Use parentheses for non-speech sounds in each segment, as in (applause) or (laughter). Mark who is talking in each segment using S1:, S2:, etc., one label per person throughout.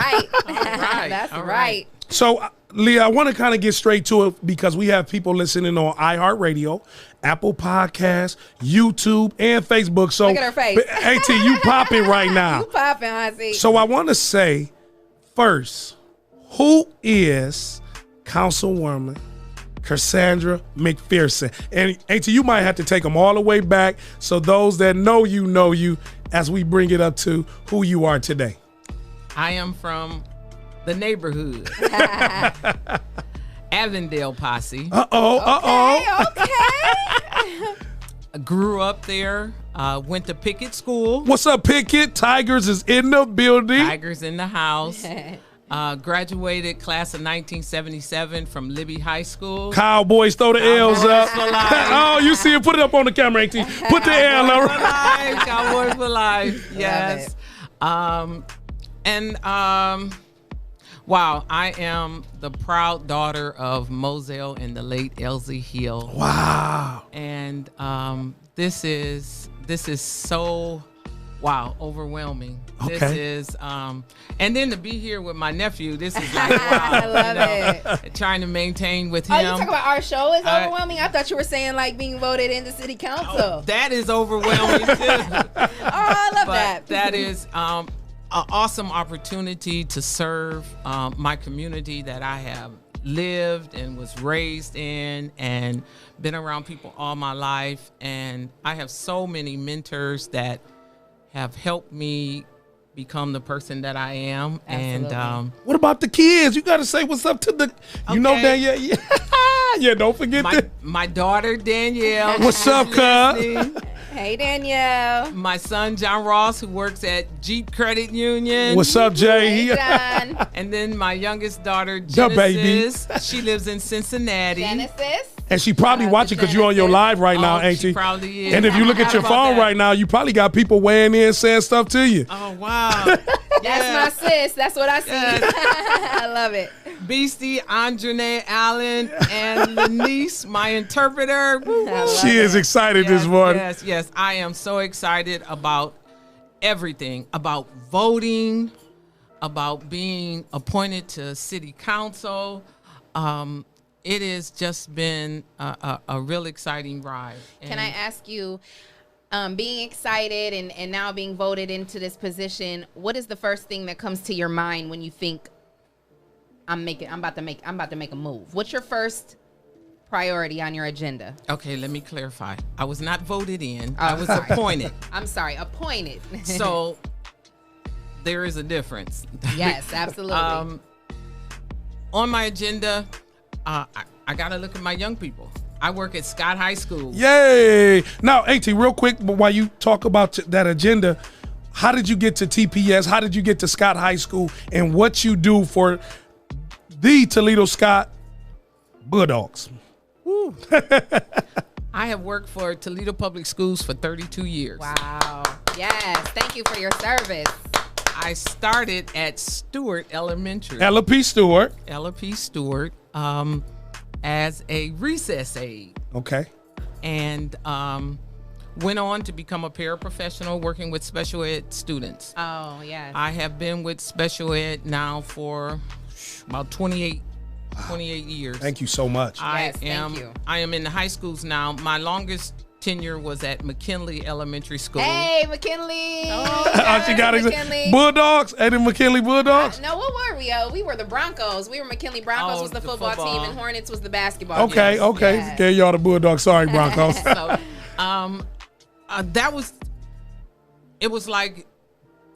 S1: (laughs)
S2: right. (laughs) That's
S1: all
S2: right.
S1: right.
S3: So, uh, Leah, I want to kind of get straight to it because we have people listening on iHeartRadio, Apple Podcasts, YouTube, and Facebook. So,
S2: Look at her face.
S3: but, AT, you popping right
S2: (laughs)
S3: now.
S2: You popping, Hansi.
S3: So, I want to say first, who is Councilwoman Cassandra McPherson? And AT, you might have to take them all the way back. So, those that know you know you as we bring it up to who you are today.
S1: I am from the neighborhood. Avondale Posse.
S3: Uh oh, uh oh.
S2: okay,
S1: (laughs)
S2: okay.
S1: Grew up there. Uh, went to Pickett School.
S3: What's up, Pickett? Tigers is in the building.
S1: Tigers in the house. Uh, graduated class of 1977 from Libby High School.
S3: Cowboys throw the L's up.
S1: Cowboys for life.
S3: (laughs) oh, you see it? Put it up on the camera, AT. Put the L
S1: Cowboys for (laughs)
S3: up.
S1: life. Cowboys for life. Yes. Um, and um, wow, I am the proud daughter of Moselle and the late Elsie Hill.
S3: Wow.
S1: and um, this is this is so wow overwhelming
S3: Okay.
S1: this is um and then to be here with my nephew this
S2: (laughs)
S1: is like wow
S2: I love
S1: you know,
S2: it.
S1: trying to maintain with
S2: Oh, you
S1: him
S2: talking about our show is
S1: I-
S2: overwhelming? I thought you were saying like being voted into city council. Oh,
S1: that is overwhelming
S2: (laughs)
S1: too
S2: I love
S1: but
S2: that.
S1: that is um, an awesome opportunity to serve um, my community that I have lived and was raised in and been around people all my life. And I have so many mentors that have helped me become the person that I am. And
S2: Absolutely.
S1: um,
S3: What about the kids? You got to say what's up to the. You know,
S1: Okay.
S3: Danielle. (laughs) Yeah, yeah don't forget
S1: my,
S3: that.
S1: my daughter, Danielle.
S3: (laughs)
S1: (laughs)
S3: What's up, cuz?
S2: hey Danielle.
S1: My son, John Ross, who works at Jeep Credit Union.
S3: What's up, Jay?
S2: Hey
S1: (laughs)
S3: He-
S2: John.
S1: And then my youngest daughter,
S3: The baby.
S1: Genesis,
S3: (laughs)
S1: she lives in Cincinnati.
S2: Genesis.
S3: and she probably watching because you're on your live right now,
S1: Oh,
S3: ain't
S1: she
S3: she?
S1: probably is.
S3: And if you look
S1: How
S3: at your
S1: about
S3: phone
S1: that?
S3: right now, you probably got people weighing in saying stuff to you.
S1: Oh,
S3: (laughs)
S1: wow. yeah.
S2: That's my sis. That's what I see.
S1: Yes.
S2: (laughs) I love it.
S1: Beastie, Andre Allen, and Lanice, my interpreter. Woo, woo.
S2: I love
S3: She
S2: it.
S3: is excited
S1: yes,
S3: this morning.
S1: Yes, yes. I am so excited about everything about voting, about being appointed to city council. Um, it has just been a, a, a real exciting ride.
S2: Can I ask you, um, being excited and, and now being voted into this position, what is the first thing that comes to your mind when you think I'm making I'm about to make I'm about to make a move? What's your first priority on your agenda?
S1: Okay, let me clarify. I was not voted in. I was
S2: sorry.
S1: appointed.
S2: I'm sorry, appointed. (laughs)
S1: So there is a difference.
S2: yes, absolutely.
S1: Um, on my agenda, uh, I, I gotta look at my young people. I work at Scott High School.
S3: Yay! Now, AT, real quick, but while you talk about t- that agenda, how did you get to TPS? How did you get to Scott High School? And what you do for the Toledo Scott Bulldogs?
S1: I have worked for Toledo Public Schools for 32 years.
S2: wow. Yes, thank you for your service.
S1: I started at Stewart Elementary,
S3: Ella P. Stewart.
S1: Ella P. Stewart, um, as a recess aide.
S3: Okay.
S1: and um, went on to become a paraprofessional working with special ed students.
S2: Oh yes.
S1: I have been with special ed now for about 28, 28 years.
S3: Thank you so much.
S1: I
S2: Yes, thank
S1: am
S2: you.
S1: I am in the high schools now. My longest tenure was at McKinley Elementary School.
S2: hey McKinley.
S3: Oh, she got it.
S2: McKinley.
S3: Bulldogs. Eddie McKinley Bulldogs.
S2: No, what were we? Oh, we were the Broncos. We were McKinley Broncos
S1: Oh,
S2: was the
S1: the
S2: football, team,
S1: football.
S2: and Hornets was the basketball.
S3: Okay,
S1: Yes,
S3: okay.
S2: yes.
S3: Gave y'all the Bulldogs. Sorry, Broncos.
S1: So, um, uh, that was, it was like,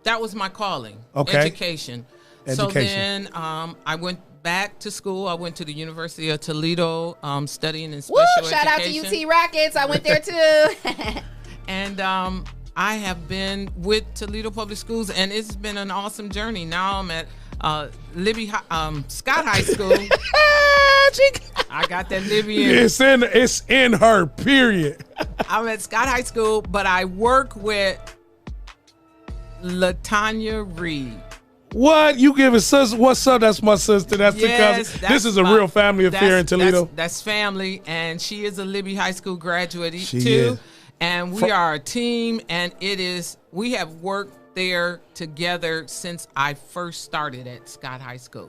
S1: that was my calling.
S3: Okay.
S1: Education. So
S3: Education.
S1: then um, I went back to school. I went to the University of Toledo, um, studying in special
S2: Woo!
S1: education.
S2: Shout out to UT Rockets. I went there too. (laughs)
S1: And um, I have been with Toledo Public Schools, and it's been an awesome journey. Now I'm at uh, Libby, Hi- um, Scott High School. I got that Libby in.
S3: it's in it's in her, period.
S1: I'm at Scott High School, but I work with Latanya Reed.
S3: What you giving sis? What's up? That's my sister. That's the cousin. this is a
S1: my-
S3: real family affair
S1: that's-
S3: in Toledo.
S1: That's, that's family, and she is a Libby High School graduate
S3: She
S1: too.
S3: is.
S1: And we are a team, and it is we have worked there together since I first started at Scott High School.